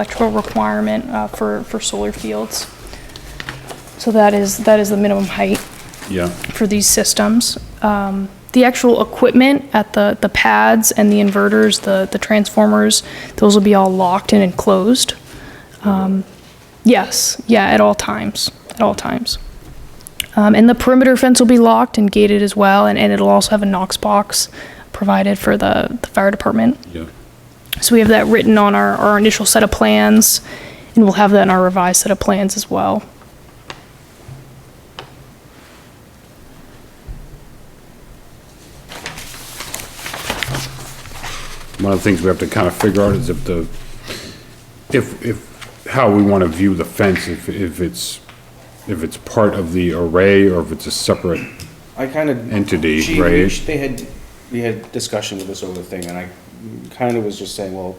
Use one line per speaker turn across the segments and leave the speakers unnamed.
electrical requirement uh, for, for solar fields. So that is, that is the minimum height
Yeah,
for these systems. Um, The actual equipment at the, the pads and the inverters, the, the transformers, those will be all locked and enclosed. Um, Yes, yeah, at all times, at all times. Um, And the perimeter fence will be locked and gated as well, and, and it'll also have a Knox box provided for the, the fire department.
yeah.
So we have that written on our, our initial set of plans, and we'll have that in our revised set of plans as well.
One of the things we have to kind of figure out is if the, if, if, how we want to view the fence, if, if it's, if it's part of the array or if it's a separate,
I kind of.
Entity, right?
They had, we had discussion with this over thing, and I kind of was just saying, well,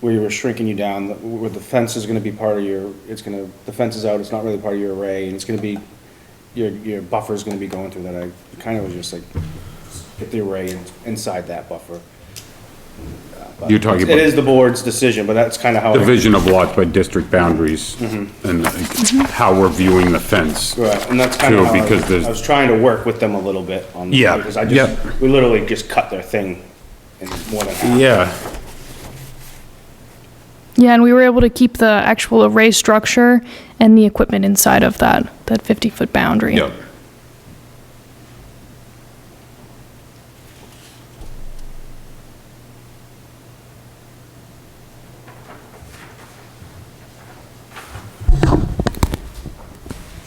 we were shrinking you down, the- where the fence is gonna be part of your, it's gonna, the fence is out, it's not really part of your array, and it's gonna be, your, your buffer's gonna be going through that. I kind of was just like, get the array in- inside that buffer.
you're talking
It is
about
the board's decision, but that's kind of how. I-
division of lots by district boundaries and like, how we're viewing the fence.
Mm-hmm. Right, and that's kind of
True,
how I
because
was-
there's-
I was trying to work with them a little bit on.
Yeah,
Because I
yeah.
just, we literally just cut their thing in more than half.
Yeah,
Yeah, and we were able to keep the actual array structure and the equipment inside of that, that 50-foot boundary.
yeah.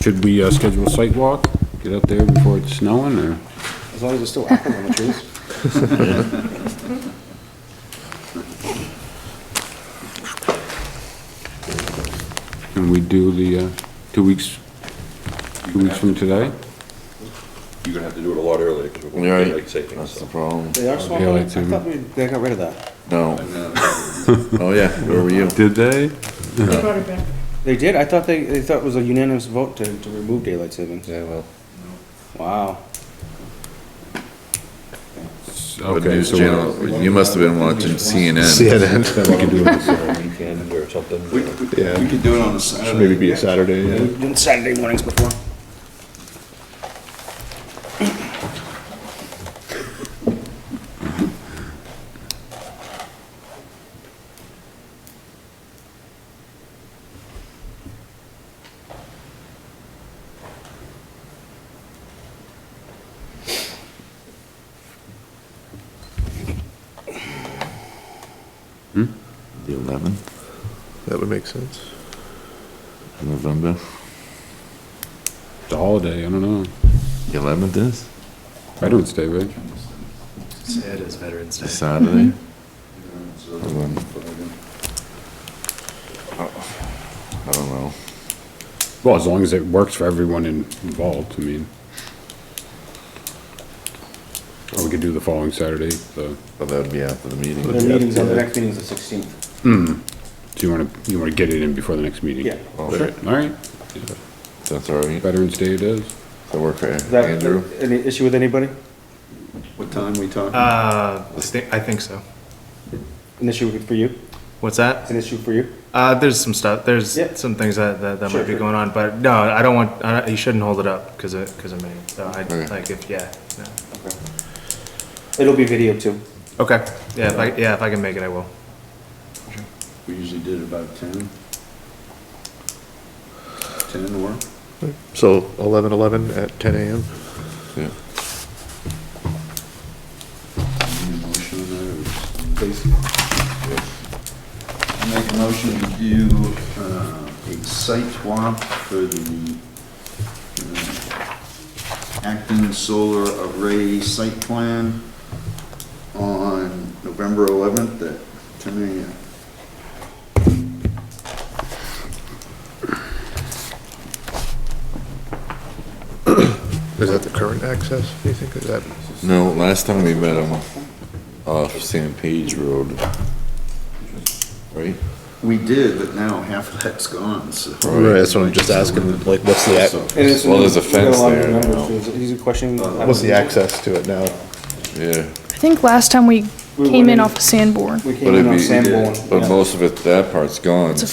Should we, uh, schedule a site walk? Get out there before it's snowing or?
As long as it's still active on the trees.
And we do the, uh, two weeks, two weeks from today?
You're gonna have to do it a lot earlier, because we're
You're
going to
right.
daylight savings,
That's the
so.
problem.
They are swamp,
Yeah,
I
it's in-
thought we, they got rid of that.
No. Oh, yeah, where were you?
Did they?
They did, I thought they, they thought it was a unanimous vote to, to remove daylight savings.
Yeah, well.
Wow.
The
Okay,
news
so we
channel, you must have been watching CNN.
CNN,
can do it.
Weekend or something. We
yeah. We could do it on a Saturday. Maybe be a Saturday, yeah.
We've done Saturday mornings before.
The 11th
That would make sense.
of November?
It's a holiday, I don't know.
The 11th is?
Veterans Day, right?
It is Veterans Day.
It's Saturday? Oh, I don't know.
Well, as long as it works for everyone in- involved, I mean. Or we could do the following Saturday, so,
But that would be after the
Their
meeting.
meetings, on the next meeting's the sixteenth.
do you wanna, you wanna get it in before the next meeting?
Yeah.
Sure.
Alright,
That's all right.
Veterans Day it is.
That work for
Is that,
Andrew?
any issue with anybody?
What time we talking?
Uh, I thi- I think so.
An issue for you?
What's that?
An issue for you?
Uh, there's some stuff, there's
Yeah.
some things that, that, that
Sure,
might be
sure.
going on, but no, I don't want, I, don't- you shouldn't hold it up because of, because of me. So I,
Okay.
like, if, yeah, no.
It'll be video too.
Okay, yeah, if I, yeah, if I can make it, I will.
we usually did about ten. Ten or?
So eleven eleven at ten AM?
Yeah.
Motion on that, or is- I Make a motion to do, uh, a site walk for the, uh, Acton Solar Array Site Plan on November eleventh at ten AM.
Is that the current access, do you think, is that?
No, last time we met him off San Page Road. Right?
We did, but now half of that's gone, so.
Right, that's what I'm just asking, like, what's the, ac-
And it's-
Well, there's a
we got
fence
lot of
there
members.
now.
He's- He's a question.
what's the access to it now?
Yeah.
I think last time we
We
came in
wouldn't-
off of Sanborn.
We came
But
in
it'd
on
be,
Sanborn.
but
yeah.
most of it, that part's gone.
It's a